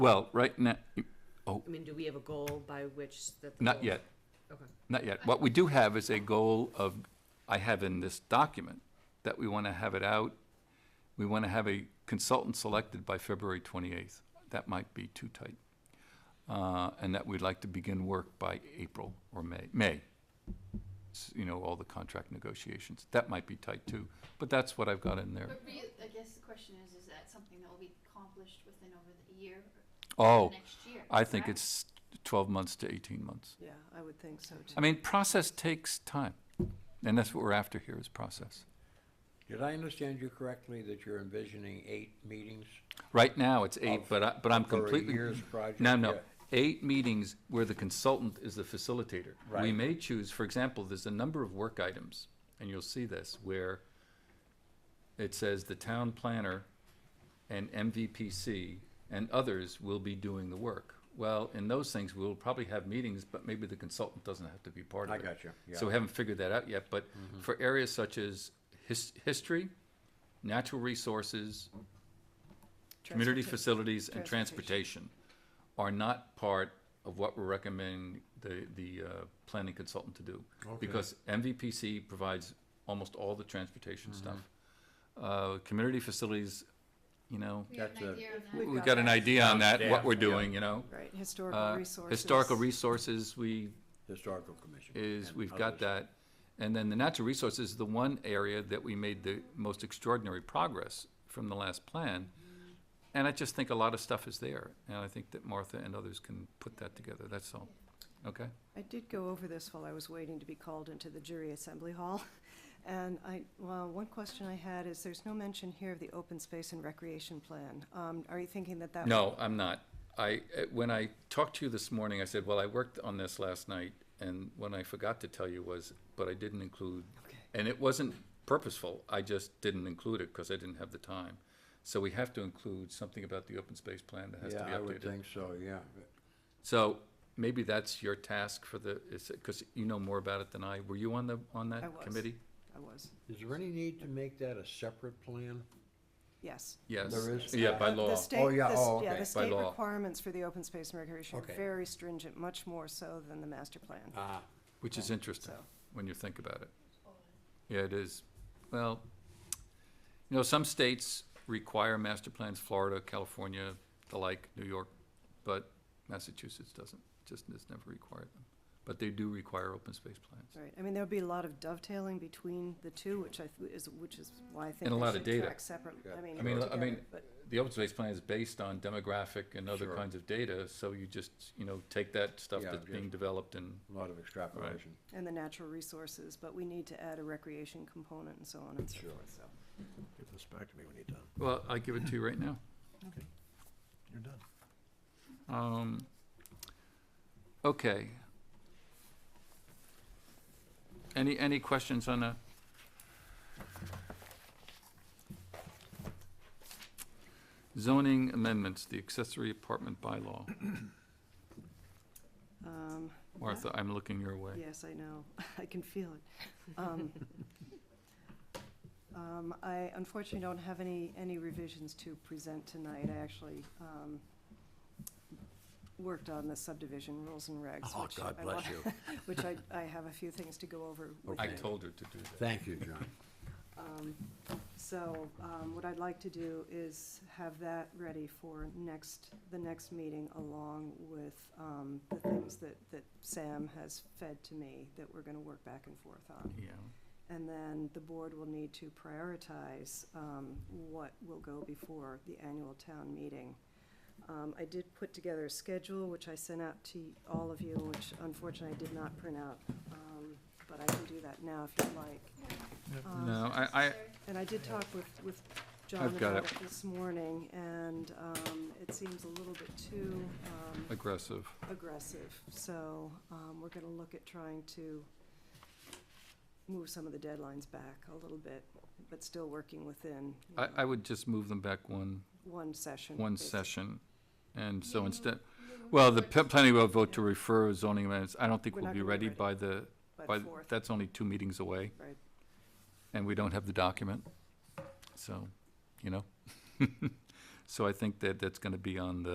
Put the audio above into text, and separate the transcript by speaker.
Speaker 1: Well, right now, oh,
Speaker 2: I mean, do we have a goal by which that? the
Speaker 1: not
Speaker 2: goal-
Speaker 1: yet,
Speaker 2: Okay.
Speaker 1: not yet. What we do have is a goal of, I have in this document, that we want to have it out. We want to have a consultant selected by February twenty-eighth. That might be too tight. Uh, and that we'd like to begin work by April or May, May. S- You know, all the contract negotiations. That might be tight too, but that's what I've got in there.
Speaker 3: But re- I guess the question is, is that something that will be accomplished within over the year or
Speaker 1: Oh,
Speaker 3: the next year?
Speaker 1: I think
Speaker 3: correct?
Speaker 1: it's twelve months to eighteen months.
Speaker 4: Yeah, I would think so too.
Speaker 1: I mean, process takes time, and that's what we're after here is process.
Speaker 5: Did I understand you correctly that you're envisioning eight meetings?
Speaker 1: Right now, it's eight,
Speaker 5: Of-
Speaker 1: but I, but I'm
Speaker 5: for a
Speaker 1: completely.
Speaker 5: year's project,
Speaker 1: No, no,
Speaker 5: yeah.
Speaker 1: eight meetings where the consultant is the facilitator. We
Speaker 5: Right.
Speaker 1: may choose, for example, there's a number of work items, and you'll see this, where it says the town planner and MVPC and others will be doing the work. Well, in those things, we'll probably have meetings, but maybe the consultant doesn't have to be part of
Speaker 5: I
Speaker 1: it.
Speaker 5: got you, yeah. Mm-hmm.
Speaker 1: So we haven't figured that out yet, but for areas such as his, history, natural resources, community
Speaker 4: Transportation.
Speaker 1: facilities and transportation
Speaker 4: Transportation.
Speaker 1: are not part of what we're recommending the, the, uh, planning consultant to do. Because MVPC provides almost all the
Speaker 5: Mm-hmm.
Speaker 1: transportation stuff. Uh, community facilities, you know,
Speaker 3: We have an
Speaker 5: That's a-
Speaker 3: idea on that.
Speaker 4: We've
Speaker 1: we've
Speaker 4: got
Speaker 1: got an
Speaker 4: that.
Speaker 1: idea on that, what
Speaker 5: Yeah.
Speaker 1: we're doing, you know?
Speaker 4: Right,
Speaker 1: Uh,
Speaker 4: historical resources.
Speaker 1: Historical resources, we
Speaker 5: Historical commission.
Speaker 1: is,
Speaker 5: and
Speaker 1: we've got
Speaker 5: others.
Speaker 1: that. And then the natural resources is the one area that we made the most extraordinary progress from the last plan. And I just think a lot of stuff is there, and I think that Martha and others can put that together, that's all. Okay?
Speaker 4: I did go over this while I was waiting to be called into the jury assembly hall. And I, well, one question I had is, there's no mention here of the open space and recreation plan. Um, Are you thinking that that?
Speaker 1: No, I'm not. I, eh, when I talked to you this morning, I said, well, I worked on this last night, and what I forgot to tell you was, but I didn't include,
Speaker 4: Okay.
Speaker 1: and it wasn't purposeful, I just didn't include it because I didn't have the time. So we have to include something about the open space plan that has to be updated.
Speaker 5: Yeah, I would think so, yeah.
Speaker 1: So maybe that's your task for the, is it, because you know more about it than I. Were you on the, on
Speaker 4: I
Speaker 1: that
Speaker 4: was.
Speaker 1: committee?
Speaker 4: I was,
Speaker 5: Is there any need to make that a separate plan?
Speaker 4: yes.
Speaker 1: Yes.
Speaker 5: There is.
Speaker 1: Yeah, by
Speaker 4: The-
Speaker 1: law.
Speaker 4: The state,
Speaker 5: Oh, yeah,
Speaker 4: the s-
Speaker 5: oh,
Speaker 4: yeah,
Speaker 5: okay.
Speaker 4: the
Speaker 5: By
Speaker 4: state
Speaker 1: law.
Speaker 4: requirements for the open space and recreation are
Speaker 5: Okay.
Speaker 4: very stringent, much more so than the master plan.
Speaker 5: Ah,
Speaker 1: Which is interesting,
Speaker 4: So-
Speaker 1: when you think about it. Yeah, it is. Well, you know, some states require master plans, Florida, California, the like, New York, but Massachusetts doesn't, just has never required them. But they do require open space plans.
Speaker 4: Right, I mean, there'll be a lot of dovetailing between the two, which I, th- is, which is why I think
Speaker 1: And a
Speaker 4: they
Speaker 1: lot of
Speaker 4: should
Speaker 1: data.
Speaker 4: track separate, I mean,
Speaker 1: I mean, I
Speaker 4: together,
Speaker 1: mean,
Speaker 4: but-
Speaker 1: the open space plan is based on demographic and other
Speaker 5: Sure.
Speaker 1: kinds of data, so you just, you know, take that stuff
Speaker 5: Yeah,
Speaker 1: that's being
Speaker 5: just-
Speaker 1: developed and
Speaker 5: a lot of extrapolation.
Speaker 4: and the natural resources, but we need to add a recreation component and so on and so
Speaker 5: Sure.
Speaker 4: forth, so.
Speaker 6: Give this back to me when you're done.
Speaker 1: Well, I give it to you right now.
Speaker 6: You're done.
Speaker 1: Um, okay. Any, any questions on that? Zoning amendments, the accessory apartment bylaw.
Speaker 4: Um,
Speaker 1: Martha, I'm looking your way.
Speaker 4: Yes, I know. I can feel it. Um, um, I unfortunately don't have any, any revisions to present tonight. I actually um, worked on the subdivision rules and regs.
Speaker 5: Oh,
Speaker 4: which
Speaker 5: God
Speaker 4: I
Speaker 5: bless
Speaker 4: wa-
Speaker 5: you.
Speaker 4: Which I, I have a few things to go over with
Speaker 1: I
Speaker 4: you.
Speaker 1: told her to do that.
Speaker 5: Thank you, John.
Speaker 4: Um, So um, what I'd like to do is have that ready for next, the next meeting along with um, the things that, that Sam has fed to me that we're going to work back and forth on.
Speaker 1: Yeah,
Speaker 4: And then the board will need to prioritize um, what will go before the annual town meeting. Um, I did put together a schedule, which I sent out to all of you, which unfortunately I did not print out. um, But I can do that now if you'd like. Um,
Speaker 1: no, I, I,
Speaker 4: And I did talk with, with John
Speaker 1: I've got
Speaker 4: about
Speaker 1: it.
Speaker 4: it this morning, and um, it seems a little bit too um,
Speaker 1: aggressive.
Speaker 4: aggressive. So um, we're going to look at trying to move some of the deadlines back a little bit, but still working within you
Speaker 1: I,
Speaker 4: know,
Speaker 1: I would just move them back one,
Speaker 4: one session.
Speaker 1: one
Speaker 4: basi-
Speaker 1: session. And so
Speaker 3: Yeah,
Speaker 1: instead,
Speaker 3: Moving
Speaker 1: well, the
Speaker 3: forward,
Speaker 1: p- planning will vote to refer zoning amendments. I don't think
Speaker 4: We're
Speaker 1: we'll
Speaker 4: not
Speaker 1: be
Speaker 4: gonna be
Speaker 1: ready
Speaker 4: ready.
Speaker 1: by the,
Speaker 4: But
Speaker 1: by,
Speaker 4: fourth,
Speaker 1: that's only two meetings away.
Speaker 4: right.
Speaker 1: and we don't have the document, so, you know. So I think that that's gonna be on the